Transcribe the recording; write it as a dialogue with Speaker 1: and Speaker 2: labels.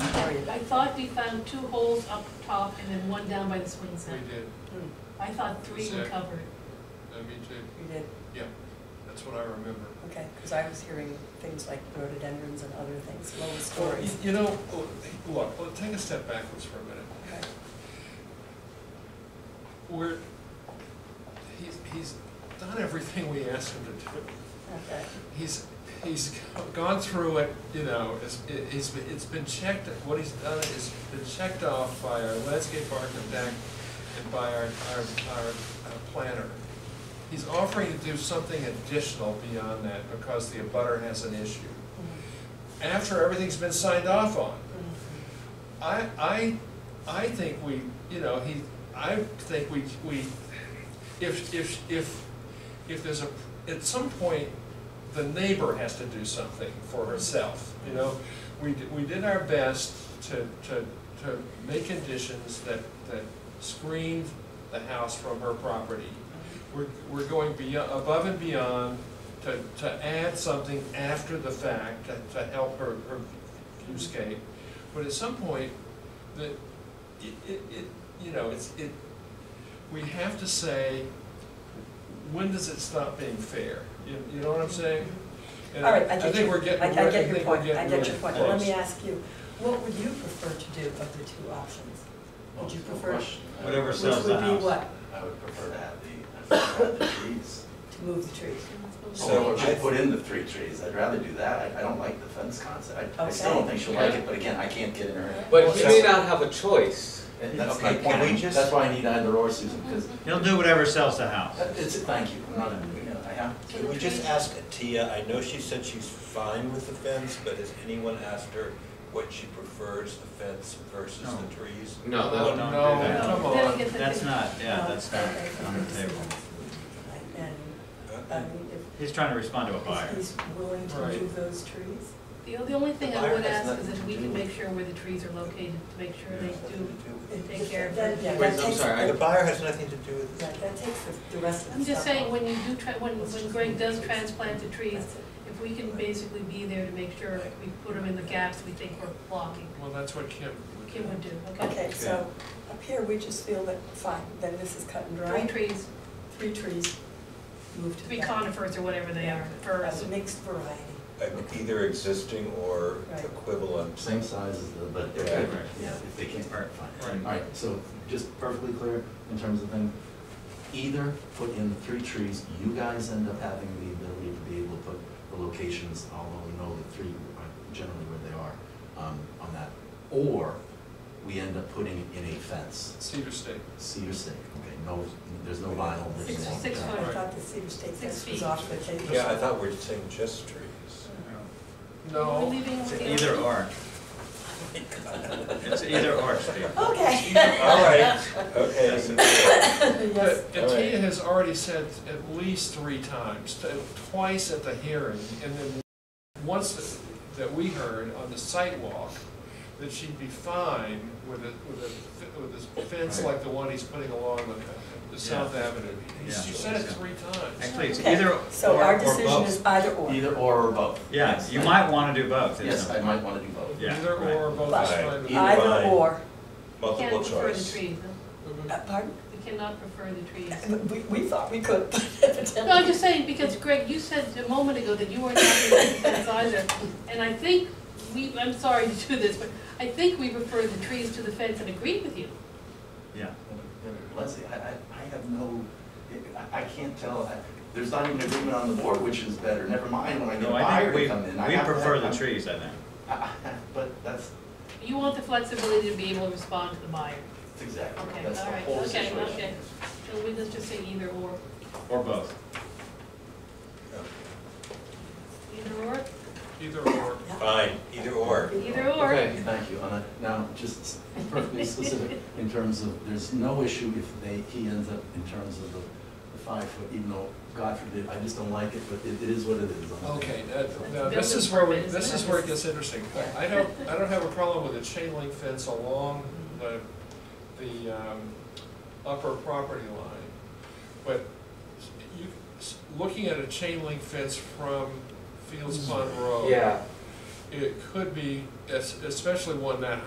Speaker 1: decided. I thought we found two holes up top and then one down by the swing
Speaker 2: We
Speaker 1: set.
Speaker 2: did,
Speaker 1: I thought three were
Speaker 2: Set.
Speaker 1: covered.
Speaker 2: I mean, too,
Speaker 3: Hmm. You did,
Speaker 2: that's what I remember.
Speaker 3: okay, because I was hearing things like rhododendrons and other things, lower
Speaker 2: Well,
Speaker 3: stories.
Speaker 2: you- You know, oh, look, well, take a step backwards for a minute.
Speaker 3: Okay.
Speaker 2: We're, he's, he's done everything we asked him to do.
Speaker 3: Okay,
Speaker 2: He's, he's gone through it, you know, it's, it- it's, been- it's been checked, what he's done is been checked off by our landscape architect and by our, our, our uh, planner. He's offering to do something additional beyond that because the abutter has an issue. After everything's been signed off on.
Speaker 3: Mm-hmm.
Speaker 2: I, I, I think we, you know, he, I think we, we, if, if, if, if there's a, at some point, the neighbor has to do something for herself, you know? We, d- we did our best to, to, to make conditions that, that screened the house from her property. We're, we're going beyond, above and beyond to, to add something after the fact to, to help her, her viewscape. But at some point, that, it, it, it, you know, it's, it, we have to say, when does it stop being fair? You, you know what I'm saying? And
Speaker 3: all right, I get
Speaker 2: think
Speaker 3: you,
Speaker 2: we're
Speaker 3: I
Speaker 2: getting,
Speaker 3: I
Speaker 2: re- I
Speaker 3: get
Speaker 2: think
Speaker 3: your
Speaker 2: we're
Speaker 3: point,
Speaker 2: getting
Speaker 3: I get your
Speaker 2: really
Speaker 3: point, let me
Speaker 2: close.
Speaker 3: ask you, what would you prefer to do of the two options?
Speaker 4: Oh,
Speaker 3: Would you
Speaker 5: Well,
Speaker 3: prefer-
Speaker 5: no question. I
Speaker 4: Whatever
Speaker 5: would-
Speaker 4: sells the
Speaker 3: Which would
Speaker 4: house.
Speaker 3: be what,
Speaker 5: I would prefer to have the, I prefer to have the trees.
Speaker 3: to move the trees?
Speaker 4: So
Speaker 5: Or
Speaker 4: I-
Speaker 5: just put in the three trees, I'd rather do that, I, I don't like the fence concept, I, I still don't think she'll like it, but again, I can't get in her head.
Speaker 6: But you may
Speaker 5: So-
Speaker 6: not have a choice.
Speaker 5: And that's my
Speaker 4: Okay,
Speaker 5: point,
Speaker 4: can I
Speaker 5: We-
Speaker 4: just-
Speaker 5: that's why I need either or, Susan, because,
Speaker 4: He'll do whatever sells the house.
Speaker 5: it's, thank you, I'm not, you know, I have.
Speaker 4: Can we just ask Tia, I know she said she's fine with the fence, but has anyone asked her what she prefers, the fence versus No. the trees?
Speaker 6: No, that-
Speaker 2: No,
Speaker 4: Well, don't do that.
Speaker 2: come
Speaker 1: No, that'll
Speaker 2: on.
Speaker 1: get the-
Speaker 4: That's not, yeah,
Speaker 3: No,
Speaker 4: that's not
Speaker 3: okay,
Speaker 4: on the
Speaker 3: okay.
Speaker 4: table.
Speaker 3: And, I
Speaker 4: Uh,
Speaker 3: mean, if
Speaker 4: He's trying to respond to a buyer.
Speaker 3: he's willing to
Speaker 2: Right.
Speaker 3: move those trees?
Speaker 1: The the only thing I
Speaker 5: Fire
Speaker 1: would
Speaker 5: has
Speaker 1: ask is
Speaker 5: nothing
Speaker 1: if
Speaker 5: to
Speaker 1: we
Speaker 5: do
Speaker 1: can
Speaker 5: with
Speaker 1: make sure where the trees are located, to make sure they do.
Speaker 3: It-
Speaker 1: Take care of
Speaker 3: that-
Speaker 1: it.
Speaker 3: yeah, that
Speaker 6: Wait, I'm
Speaker 3: takes-
Speaker 6: sorry, I-
Speaker 4: The buyer has nothing to do with
Speaker 3: Yeah,
Speaker 4: it.
Speaker 3: that takes the- the rest of the stuff.
Speaker 1: I'm just saying,
Speaker 3: off.
Speaker 1: when you do, tra- when, when Greg does transplant the trees,
Speaker 3: That's it.
Speaker 1: if we can basically be there to make sure we put them in the gaps we think we're blocking,
Speaker 2: Well, that's what Kim. would
Speaker 1: Kim
Speaker 2: do.
Speaker 1: would do, okay?
Speaker 3: Okay, so up here, we just feel that, fine, then this is cut and dry.
Speaker 1: Three trees,
Speaker 3: Three trees moved to the
Speaker 1: three
Speaker 3: back.
Speaker 1: conifers or whatever they are,
Speaker 3: That's
Speaker 1: firs.
Speaker 3: a mixed variety.
Speaker 4: Like, Either existing or
Speaker 3: Right.
Speaker 4: equivalent.
Speaker 5: Same size as the, but they're
Speaker 4: Yeah.
Speaker 5: different, yeah, if they can't part, fine.
Speaker 2: Right.
Speaker 5: Alright, so just perfectly clear in terms of thing, either put in the three trees, you guys end up having the ability to be able to put the locations, although we know the three are generally where they are, um, on that. Or we end up putting in a fence,
Speaker 2: Cedar State.
Speaker 5: cedar stake, okay, no, there's no vinyl, there's
Speaker 1: Six-
Speaker 5: no.
Speaker 1: six
Speaker 5: yeah.
Speaker 3: I
Speaker 1: Right.
Speaker 3: thought the cedar stake
Speaker 1: Six
Speaker 3: fence was
Speaker 1: feet.
Speaker 3: off the table.
Speaker 4: Yeah, I thought we were saying just trees.
Speaker 1: We're
Speaker 2: No,
Speaker 1: leaving
Speaker 4: It's
Speaker 1: with the-
Speaker 4: either or. It's either or, Steve.
Speaker 3: Okay.
Speaker 4: All right, okay.
Speaker 3: Yes,
Speaker 2: But Tia has already said at least three times, t- twice at the hearing, and then once th- that we heard on the site walk, that she'd be fine with a, with a, f- with this fence
Speaker 4: Right.
Speaker 2: like the one he's putting along the, the South
Speaker 4: Yeah.
Speaker 2: Avenue. He's- She
Speaker 4: Yeah.
Speaker 2: said it three times.
Speaker 4: Actually, it's
Speaker 3: Okay,
Speaker 4: either or or
Speaker 3: so our decision
Speaker 4: both.
Speaker 3: is either or.
Speaker 5: Either or or both.
Speaker 4: Yeah,
Speaker 5: Yes,
Speaker 4: you
Speaker 5: I-
Speaker 4: might want to do both. isn't
Speaker 5: Yes,
Speaker 4: it?
Speaker 5: I might wanna do both.
Speaker 4: Yeah,
Speaker 2: Either
Speaker 4: right.
Speaker 2: or, both is
Speaker 3: But
Speaker 2: fine. with
Speaker 4: either
Speaker 2: me.
Speaker 4: way.
Speaker 3: Either or.
Speaker 1: We
Speaker 4: Multiple
Speaker 1: can't prefer the
Speaker 4: choice.
Speaker 1: trees,
Speaker 3: Uh, Pardon?
Speaker 1: we cannot prefer the trees.
Speaker 3: We, we thought we could, but
Speaker 1: No, I'm
Speaker 3: evidently.
Speaker 1: just saying, because Greg, you said a moment ago that you weren't happy with the fence either, and I think we, I'm sorry to do this, but I think we prefer the trees to the fence and agreed with you.
Speaker 4: Yeah.
Speaker 5: Leslie, I, I, I have no, I, I can't tell, I- there's not even agreement on the board which is better, never mind when I get a
Speaker 4: No, I
Speaker 5: buyer
Speaker 4: think
Speaker 5: to
Speaker 4: we,
Speaker 5: come in. I
Speaker 4: we
Speaker 5: have-
Speaker 4: prefer the
Speaker 5: I'm-
Speaker 4: trees, I think.
Speaker 5: I- I- But that's,
Speaker 1: You want the flexibility to be able to respond to the buyer.
Speaker 5: that's exactly,
Speaker 1: Okay,
Speaker 5: that's the
Speaker 1: all right,
Speaker 5: whole
Speaker 1: okay,
Speaker 5: situation.
Speaker 1: okay. So we, let's just say either or,
Speaker 4: Or both.
Speaker 1: either or,
Speaker 2: Either or.
Speaker 4: Fine, either or.
Speaker 1: either or.
Speaker 6: Okay,
Speaker 5: Thank you, Anna. Now, just perfectly specific, in terms of, there's no issue if they, he ends up in terms of the, the five foot, even though, God forbid, I just don't like it, but it, it is what it is. I'm-
Speaker 2: Okay, uh, now, this is where we, this is where it gets interesting. I I don't, I don't have a problem with a chain link fence along the, the um, upper property line. But you, looking at a chain link fence from Fields Pond Road.
Speaker 6: yeah.
Speaker 2: It could be, es- especially one that